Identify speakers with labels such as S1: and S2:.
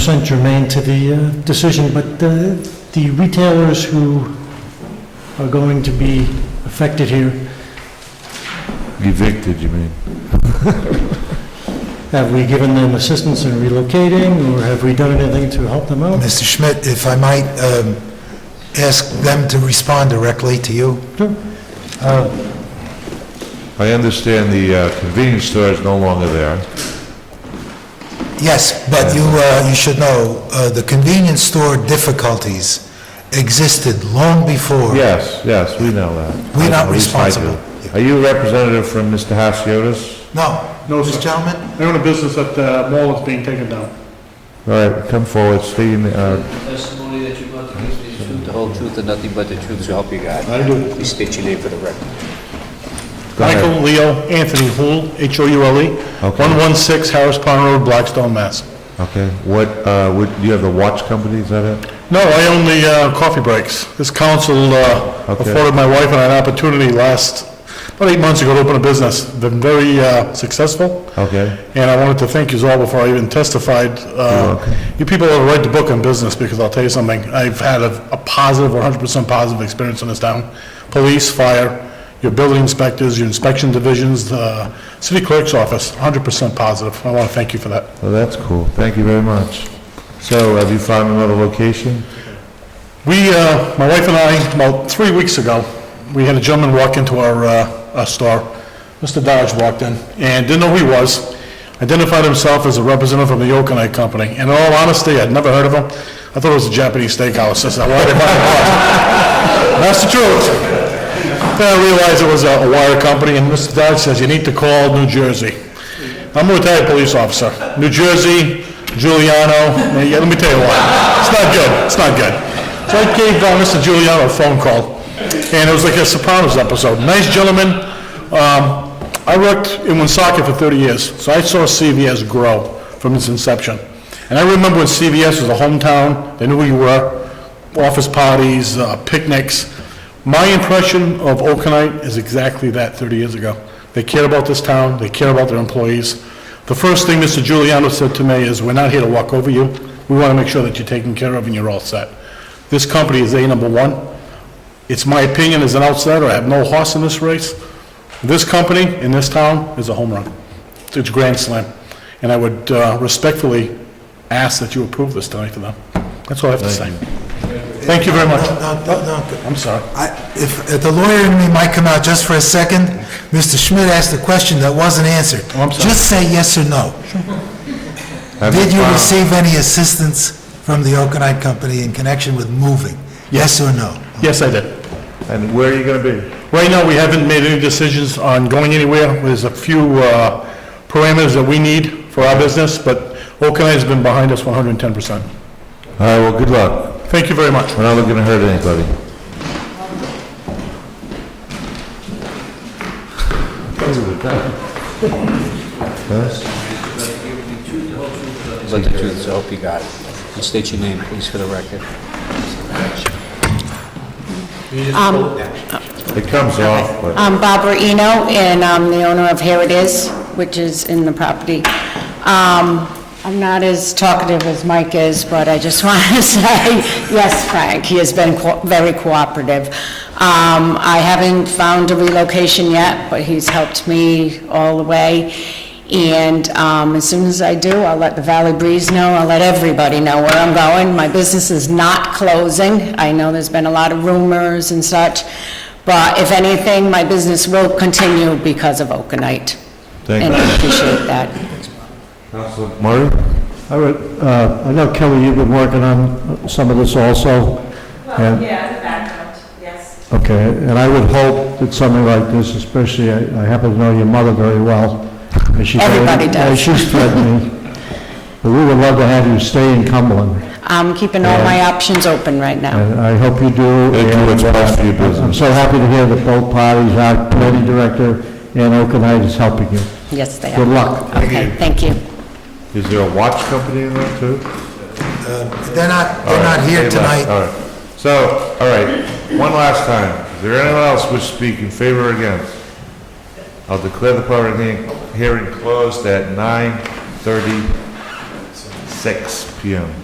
S1: percent germane to the uh, decision, but uh, the retailers who are going to be affected here,
S2: Evicted, you mean?
S1: have we given them assistance in relocating, or have we done anything to help them out?
S3: Mr. Schmidt, if I might um, ask them to respond directly to you?
S2: I understand the uh, convenience store is no longer there.
S3: Yes, but you, uh, you should know, uh, the convenience store difficulties existed long before.
S2: Yes, yes, we know that.
S3: We're not
S2: At least I do.
S3: responsible.
S2: Are you a representative from Mr. Hasiotis?
S3: No,
S4: No,
S3: this
S4: sir.
S3: gentleman?
S4: I own a business at the mall that's being taken down.
S2: All right, come forward, state your, uh,
S5: testimony that you're going to give is the truth, the whole truth, and nothing but the truth, so help you God.
S4: I do.
S5: Please state your name for the record.
S2: go ahead.
S4: Michael Leo Anthony Houle, H-O-U-L-E,
S2: Okay.
S4: 116 Harris Pond Road, Blackstone, Mass.
S2: Okay, what, uh, would, you have the watch company, is that it?
S4: No, I own the uh, coffee breaks. This council uh,
S2: Okay.
S4: afforded my wife and I an opportunity last, about eight months ago, to open a business. Been very uh, successful,
S2: Okay,
S4: and I wanted to thank you all before I even testified. Uh, You people have a right to book in business, because I'll tell you something, I've had a a positive, 100% positive experience in this town. Police, fire, your building inspectors, your inspection divisions, the city clerk's office, 100% positive. I want to thank you for that.
S2: well, that's cool, thank you very much. So, have you found another location?
S4: We, uh, my wife and I, about three weeks ago, we had a gentleman walk into our, uh, our store. Mr. Dodge walked in and didn't know who he was, identified himself as a representative from the Yokonai Company. And In all honesty, I'd never heard of him. I thought it was a Japanese steakhouse. That's not what I thought it was. That's the truth. Then I realized it was a a wire company, and Mr. Dodge says, "You need to call New Jersey." I'm a retired police officer. New Jersey, Giuliano, eh, yeah, let me tell you why. It's not good, it's not good. So I gave uh, Mr. Giuliano a phone call, and it was like a Sopranos episode. Nice gentleman. Um, I worked in Woonsocket for 30 years, so I saw CVS grow from its inception. And I remember when CVS was a hometown, they knew who you were, office parties, uh, picnics. My impression of Okanite is exactly that 30 years ago. They care about this town, they care about their employees. The first thing Mr. Giuliano said to me is, "We're not here to walk over you. We want to make sure that you're taken care of and you're all set." This company is A number one. It's my opinion as an outsider, I have no horse in this race. This company in this town is a home run. It's a grand slam. And I would uh, respectfully ask that you approve this tonight to them. That's all I have to say. Thank you very much.
S3: No, no, no.
S4: I'm sorry.
S3: I- If, if the lawyer in me might come out just for a second, Mr. Schmidt asked a question that wasn't answered.
S4: Oh, I'm sorry.
S3: Just say yes or no.
S2: Have
S3: Did you
S2: found-
S3: receive any assistance from the Okanite Company in connection with moving? Yes or no?
S4: Yes, Uh, I did.
S2: And where are you gonna be?
S4: Right now, we haven't made any decisions on going anywhere. There's a few uh, parameters that we need for our business, but Oakland has been behind us 110%.
S2: All right, well, good luck,
S4: Thank you very much.
S2: we're not looking to hurt anybody.
S5: But the truth, so help you God. Please state your name, please, for the record.
S2: It comes off, but...
S6: I'm Barbara Eno, Um, and I'm the owner of Here It Is, which is in the property. Um, I'm not as talkative as Mike is, but I just want to say, yes, Frank, he has been co- very cooperative. Um, I haven't found a relocation yet, but he's helped me all the way. And um, as soon as I do, I'll let the Valley Breeze know, I'll let everybody know where I'm going. My business is not closing. I know there's been a lot of rumors and such, but if anything, my business will continue because of Okanite.
S2: Thank
S6: And
S2: you.
S6: I appreciate that.
S2: Councilor Murray?
S1: I would, uh, I know Kelly, you've been working on some of this also,
S7: Well,
S1: and,
S7: yeah, the background, yes.
S1: okay, and I would hope that something like this, especially, I I happen to know your mother very well, and she...
S6: Everybody does.
S1: and She's threatened me, but we would love to have you stay in Cumberland.
S6: I'm keeping all my options open right now.
S1: And I hope you do.
S2: Thank you.
S1: and,
S2: It's best for your
S1: uh, I'm
S2: business.
S1: so happy to hear that both parties, our committee director and Okanite is helping you.
S6: Yes, they are.
S1: Good luck.
S6: Okay, thank you.
S2: Is there a watch company in there too?
S3: They're not, they're
S2: All
S3: not
S2: right,
S3: here
S2: they left.
S3: tonight.
S2: All right. So, all right, one last time. Is there anyone else wish to speak in favor or against? I'll declare the public hearing- hearing closed at 9:37 six PM.